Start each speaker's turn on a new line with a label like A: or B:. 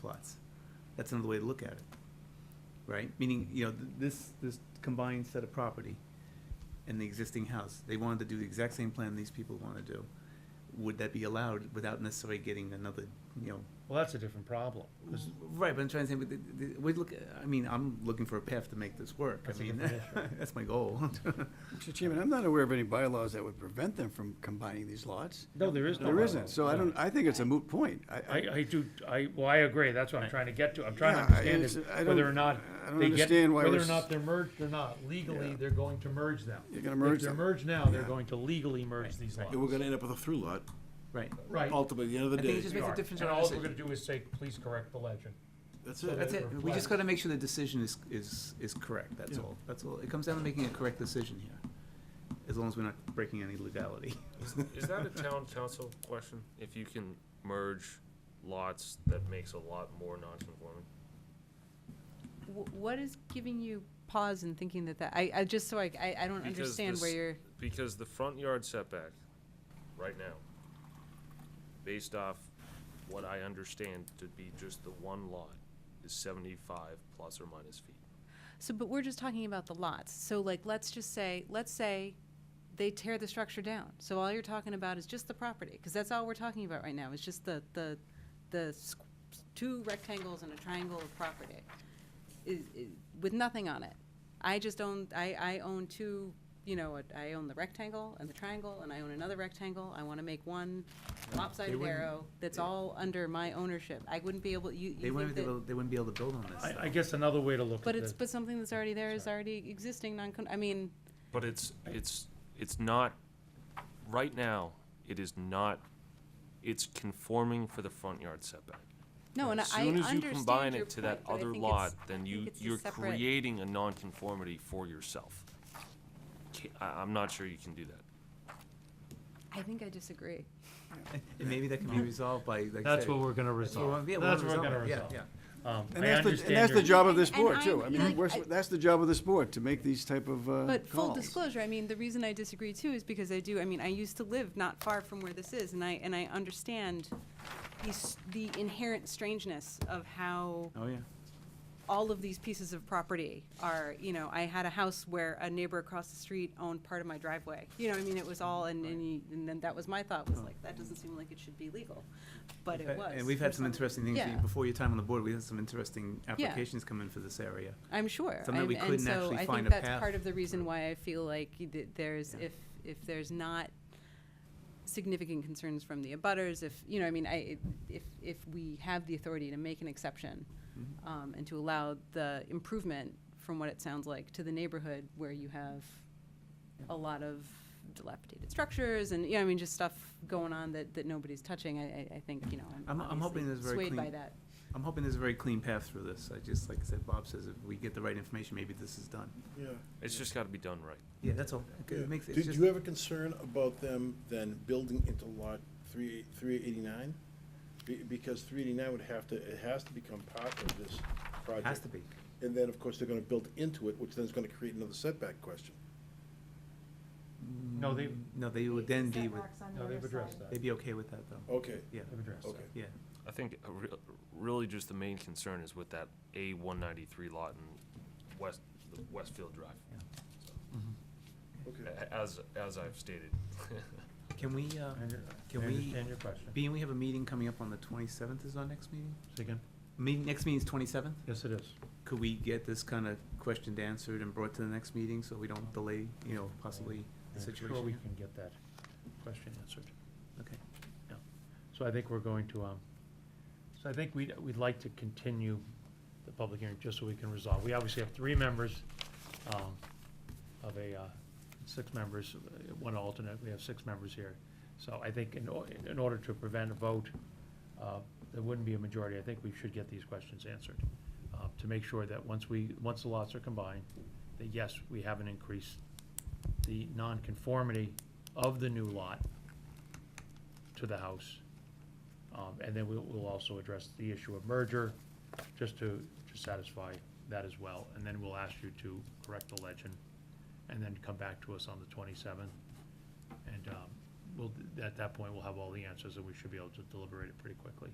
A: plots. That's another way to look at it, right? Meaning, you know, th- this, this combined set of property and the existing house, they wanted to do the exact same plan these people want to do. Would that be allowed without necessarily getting another, you know?
B: Well, that's a different problem. 'cause
A: Right, but I'm trying to say, but the- the- we look, I mean, I'm looking for a path to make this work. I
B: That's a
A: mean,
B: different
A: that's my goal.
C: Mr. Chairman, I'm not aware of any bylaws that would prevent them from combining these lots.
B: No, there is no.
C: There
B: bylaw.
C: isn't, so I don't, I think it's a moot point.
B: I, I do, I, well, I agree, that's what I'm trying to get to, I'm trying to
C: Yeah, I
B: understand is
C: understand- I
B: whether
C: don't-
B: or not
C: I don't
B: they get,
C: understand why
B: whether
C: we're
B: or
C: s-
B: not they're merged or not, legally,
C: Yeah.
B: they're going to merge them.
C: You're gonna merge
B: If they're
C: them.
B: merged now, they're
C: Yeah.
B: going to legally merge these lots.
D: And we're gonna end up with a through lot,
A: Right.
B: Right.
D: ultimately, at the end of the
A: I think it
D: day.
A: just
B: They
A: makes a
B: are.
A: difference. in
B: And
A: our
B: all we're
A: decision.
B: gonna do is say, please correct the legend.
D: That's
B: So
D: it.
A: That's it.
B: that it
A: We just
B: reflects-
A: gotta make sure the decision is, is, is correct, that's
D: Yeah.
A: all. That's all. It comes down to making a correct decision here, as long as we're not breaking any legality.
E: Is that a town council question? If you can merge lots, that makes a lot more non-conforming?
F: Wh- What is giving you pause and thinking that that, I, I, just so I, I, I don't
E: Because
F: understand where
E: this-
F: you're,
E: Because the front yard setback, right now, based off what I understand to be just the one lot, is seventy-five plus or minus feet.
F: so, but we're just talking about the lots. So like, let's just say, let's say they tear the structure down. So all you're talking about is just the property, because that's all we're talking about right now, is just the, the, the s- two rectangles and a triangle of property. Is, is, with nothing on it. I just own, I, I own two, you know, I own the rectangle and the triangle, and I own another rectangle. I wanna make one lopsided
A: wouldn't-
F: arrow that's all under my ownership. I wouldn't be able, you,
A: They
F: you
A: wouldn't
F: think
A: be able,
F: that,
A: they wouldn't be able to build on this.
B: I, I
A: though.
B: guess another way to look at
F: but it's,
B: this,
F: but something that's already there is already existing, non, I mean,
E: But it's, it's, it's not, right now, it is not, it's conforming for the front yard setback.
F: no, and I
E: As
F: I
E: soon as you combine
F: understand your
E: it to that
F: point, but I
E: other
F: think it's-
E: lot, then
F: I
E: you,
F: think it's a
E: you're
F: separate-
E: creating a nonconformity for yourself. Ca- I, am not sure you can do that.
F: I think I disagree.
A: And maybe that can be resolved by, like. I
B: that's
A: said-
B: what we're gonna
A: That's what we're-
B: resolve,
A: yeah,
B: that's
A: we're
B: what
A: resolving
B: we're gonna
A: it. Yeah,
B: resolve.
A: yeah.
B: Um,
C: And
B: I
C: that's, the- and that's
B: understand
C: the
B: your,
C: job of this
F: And- and
C: board too.
F: I'm-
C: I mean,
F: like,
C: we're,
F: I-
C: that's the job of this board, to make these type of, uh,
F: But full
C: calls.
F: disclosure, I mean, the reason I disagree too is because I do, I mean, I used to live not far from where this is, and I, and I understand the, s- the inherent strangeness of how
A: Oh, yeah.
F: all of these pieces of property are, you know, I had a house where a neighbor across the street owned part of my driveway. You know, I mean, it was all, and, and you- and then that was my thought, was like, that doesn't seem like it should be legal, but it was.
A: And we've
F: for
A: had some
F: some-
A: interesting things,
F: Yeah.
A: before your time on the board, we had some interesting applications come in for this area.
F: I'm sure.
A: Something
F: I'm-
A: we couldn't actually
F: And so I
A: find
F: think
A: a
F: that's
A: path
F: part of the reason
A: through.
F: why I feel like y- that there's, if, if there's not significant concerns from the abutters, if, you know, I mean, I, it- if, if we have the authority to make an exception
A: Mm-hmm.
F: um, and to allow the improvement, from what it sounds like, to the neighborhood where you have a lot of dilapidated structures and, you know, I mean, just stuff going on that, that nobody's touching, I, I- I think, you know,
A: I'm-
F: I'm
A: I'm hoping
F: obviously
A: there's very
F: swayed by
A: clean-
F: that.
A: I'm hoping there's a very clean path through this. I just, like I said, Bob says, if we get the right information, maybe this is done.
G: Yeah.
E: It's just gotta be done right.
A: Yeah, that's all. Okay,
G: Yeah.
A: It makes, it's
G: Did
A: just,
G: you have a concern about them then building into lot three, three eighty-nine? Be- because three eighty-nine would have to, it has to become part of this project.
A: has to be.
G: And then, of course, they're gonna build into it, which then is gonna create another setback question.
B: no, they,
A: No, they would then be with,
B: no, they've addressed that,
A: they'd be okay with that,
B: Oh.
A: though.
G: Okay,
A: Yeah,
B: they've addressed that.
G: okay.
A: yeah.
E: I think a re- really just the main concern is with that A one ninety-three lot in West, the Westfield Drive.
G: Okay.
E: A- As, as I've stated.
A: Can we, uh,
B: I under-
A: Can
B: I
A: we-
B: understand your question.
A: being we have a meeting coming up on the twenty-seventh is our next meeting?
B: Say again?
A: Meeting, next meeting's twenty-seventh?
B: Yes, it is.
A: Could we get this kind of questioned, answered, and brought to the next meeting so we don't delay, you know, possibly the
B: I'm
A: situation?
B: Sure we
A: here?
B: can get that question answered.
A: Okay.
B: So I think we're going to, um, so I think we'd, we'd like to continue the public hearing just so we can resolve. We obviously have three members, um, of a, uh, six members, uh, one alternate, we have six members here. So I think in, or- in order to prevent a vote, uh, there wouldn't be a majority, I think we should get these questions answered. Uh, to make sure that once we, once the lots are combined, that yes, we haven't increased the nonconformity of the new lot to the house. Um, and then we'll, we'll also address the issue of merger, just to, to satisfy that as well. And then we'll ask you to correct the legend, and then come back to us on the twenty-seventh. And, um, we'll, at that point, we'll have all the answers, and we should be able to deliberate it pretty quickly.